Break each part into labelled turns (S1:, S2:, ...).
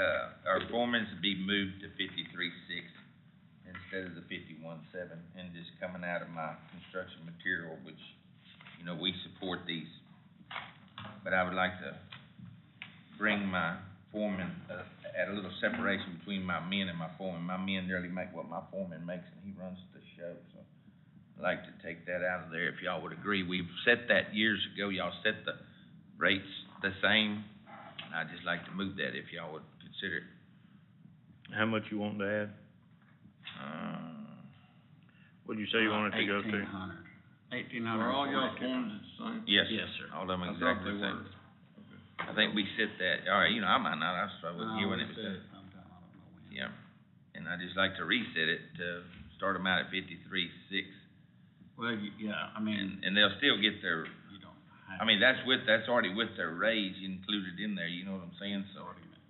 S1: uh, our foreman's be moved to fifty-three six instead of the fifty-one seven, and just coming out of my construction material, which, you know, we support these. But I would like to bring my foreman, uh, at a little separation between my men and my foreman. My men nearly make what my foreman makes, and he runs the show, so I'd like to take that out of there, if y'all would agree. We've set that years ago, y'all set the rates the same, and I'd just like to move that if y'all would consider it.
S2: How much you want to add?
S1: Um,
S2: What'd you say
S1: Uh,
S2: you wanted to go to?
S3: Uh, Eighteen hundred. Eighteen hundred.
S4: Are all y'all forms the same?
S1: Yes.
S3: Yes, sir.
S1: All of them
S4: I thought
S1: exactly
S4: they
S1: the same.
S4: were.
S1: I think we set that, all right, you know, I might not, I struggle
S3: Um,
S1: with you when it was set. Yeah, and I'd just like to reset it to start them out at fifty-three, six,
S3: Well, you- yeah, I mean,
S1: and, and they'll still get their,
S3: you don't
S1: I
S3: have.
S1: mean, that's with, that's already with their raise included in there, you know what I'm saying, so.
S3: argument.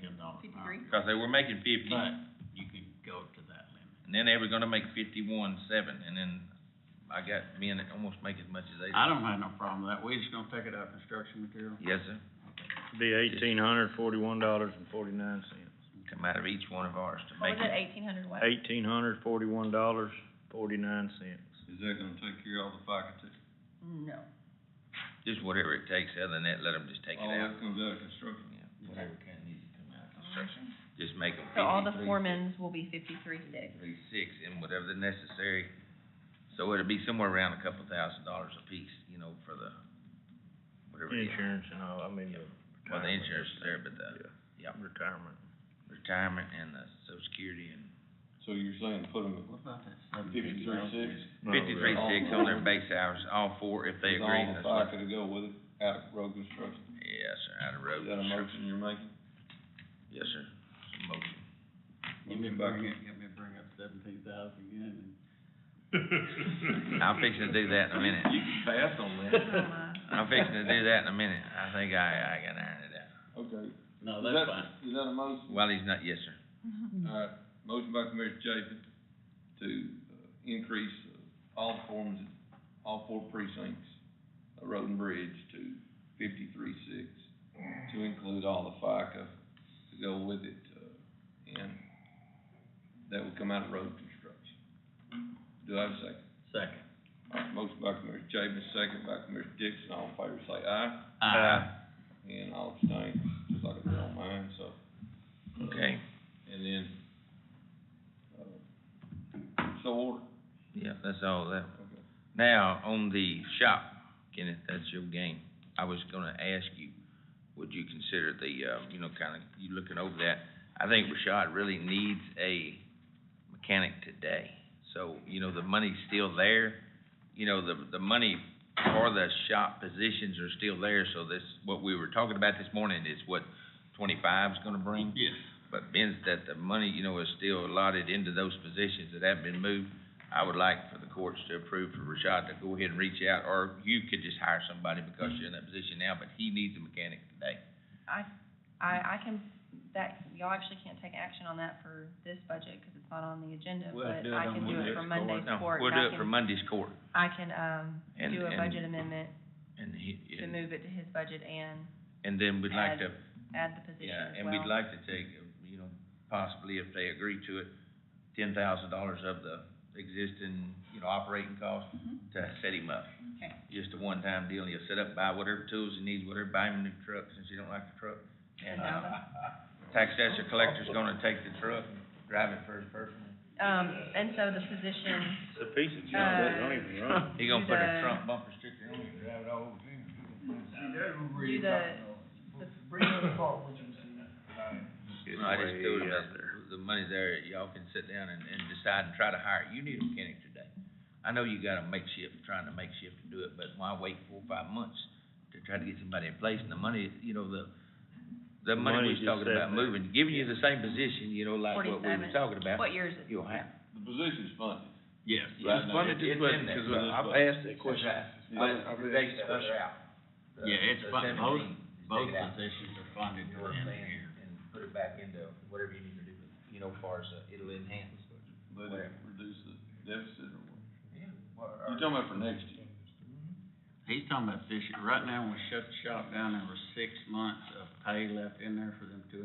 S3: Ten dollars an hour.
S1: Cause they were making fifty,
S3: But
S1: and
S3: you can go to that limit.
S1: then they were gonna make fifty-one, seven, and then I got men that almost make as much as they do.
S3: I don't have no problem with that. We just gonna take it out of construction material.
S1: Yes, sir,
S2: Be eighteen hundred forty-one dollars and forty-nine cents.
S1: come out of each one of ours to
S5: What
S1: make
S5: was it,
S1: it,
S5: eighteen hundred what?
S2: Eighteen hundred forty-one dollars, forty-nine cents.
S4: Is that gonna take care of all the FICA tax?
S5: No.
S1: just whatever it takes, other than that, let them just take it
S4: All
S1: out.
S4: that comes out of construction.
S1: Yeah, Whatever kind needs to come out of construction, just make them
S5: So all the
S1: fifty-three,
S5: foremans will be fifty-three six.
S1: fifty-six, and whatever the necessary. So it'll be somewhere around a couple thousand dollars apiece, you know, for the, whatever it is.
S2: Insurance and all, I mean, the.
S1: Well, the
S2: retirement.
S1: insurance is there, but the,
S2: Yeah,
S1: yeah,
S2: retirement.
S1: retirement and the social security and
S4: So you're saying put them
S3: What about that
S4: at
S3: seventy?
S4: fifty-three six?
S2: No,
S1: fifty-three
S2: the-
S1: six on their base hours, all four, if they agree,
S4: All
S1: that's
S4: the
S1: what.
S4: FICA to go with it, out of road construction?
S1: Yes, sir, out of road.
S4: Is that a motion you're making?
S1: Yes, sir, It's a motion.
S3: Let me
S4: Motion by
S3: bring it,
S4: Ken-
S3: let me bring up seventeen thousand again.
S1: I'm fixing to do that in a minute.
S4: You can pass on that.
S1: I'm fixing to do that in a minute. I think I, I can iron it out.
S4: Okay. Is
S3: No,
S4: that-
S3: that's fine.
S4: Is that a motion?
S1: While he's not, yes, sir.
S4: Alright, Uh, motion by Commissioner Chapin to uh, increase uh, all forms, all four precincts of Road and Bridge to fifty-three six, to include all the FICA to go with it, uh, and that would come out of road construction. Do I have a second?
S3: Second.
S4: Alright, motion by Commissioner Chapin, second by Commissioner Dixon, all in favor say aye,
S3: Aye.
S4: and all abstain, just like I did on mine, so. uh,
S1: Okay,
S4: and then, uh, so order.
S1: yeah, that's all that. Now, on the shop, Kenneth, that's your game. I was gonna ask you, would you consider the, uh, you know, kinda, you looking over that? I think Rashad really needs a mechanic today. So, you know, the money's still there. You know, the, the money for the shop positions are still there, so this, what we were talking about this morning is what twenty-five's gonna bring.
S3: Yes.
S1: But being that the money, you know, is still allotted into those positions that have been moved, I would like for the courts to approve for Rashad to go ahead and reach out, or you could just hire somebody because you're in that position now, but he needs a mechanic today.
S5: I, I, I can, that, y'all actually can't take action on that for this budget, cause it's not on the agenda,
S3: We'll
S5: but
S3: do it
S5: I
S3: on
S5: can do it
S3: Monday's court.
S5: for Monday's
S1: No,
S5: court.
S1: we'll
S5: and I
S1: do it for
S5: can-
S1: Monday's court,
S5: I can, um,
S1: And-
S5: do a
S1: and-
S5: budget amendment
S1: and he,
S5: to
S1: and,
S5: move it to his budget and
S1: and then we'd like to,
S5: add the position
S1: yeah, and
S5: as
S1: we'd
S5: well.
S1: like to take, uh, you know, possibly if they agree to it, ten thousand dollars of the existing, you know, operating cost to set him up.
S5: Mm-hmm. Okay.
S1: just a one-time deal, you'll set up, buy whatever tools you need, whatever, buy him a new truck since you don't like the truck. And, uh, tax assessor collector's gonna take the truck, and drive it for his personal.
S5: Um, and so the position,
S2: It's a piece of junk,
S5: Uh,
S2: that's not even right.
S1: He gonna put a
S5: The-
S1: Trump bumper sticker on it and drive it all over him.
S5: do the, the
S1: No, I just told him that the money there, y'all can sit down and, and decide and try to hire, you need a mechanic today. I know you got a makeshift, trying to makeshift to do it, but why wait four, or five months to try to get somebody in place? And the money, you know, the, the money we
S2: money
S1: was
S2: just
S1: talking
S2: sat
S1: about
S2: there.
S1: moving, giving you the same position, you know, like what we were
S5: Forty-seven.
S1: talking about.
S5: what year is it?
S1: You'll have.
S4: The position's funded.
S3: Yes.
S4: Right now,
S1: funded
S4: it-
S1: this
S4: it's
S1: budget,
S4: in there.
S1: 'cause
S4: Funded
S2: I've
S4: budget.
S2: asked that question.
S4: Yeah. I- I read
S1: Today's
S4: that.
S1: budget out.
S3: Yeah, it's
S1: The
S3: fun, both,
S1: 17, just
S3: both
S1: take it out.
S3: positions are funded
S1: You know what
S3: within
S1: I'm
S3: the
S1: saying?
S3: year.
S1: And put it back into whatever you need to do, you know, far as, uh, it'll enhance.
S4: Let it reduce the deficit or what?
S1: Yeah.
S4: You're talking about for next year?
S3: He's talking about this year, right now, we shut the shop down, there were six months of pay left in there for them two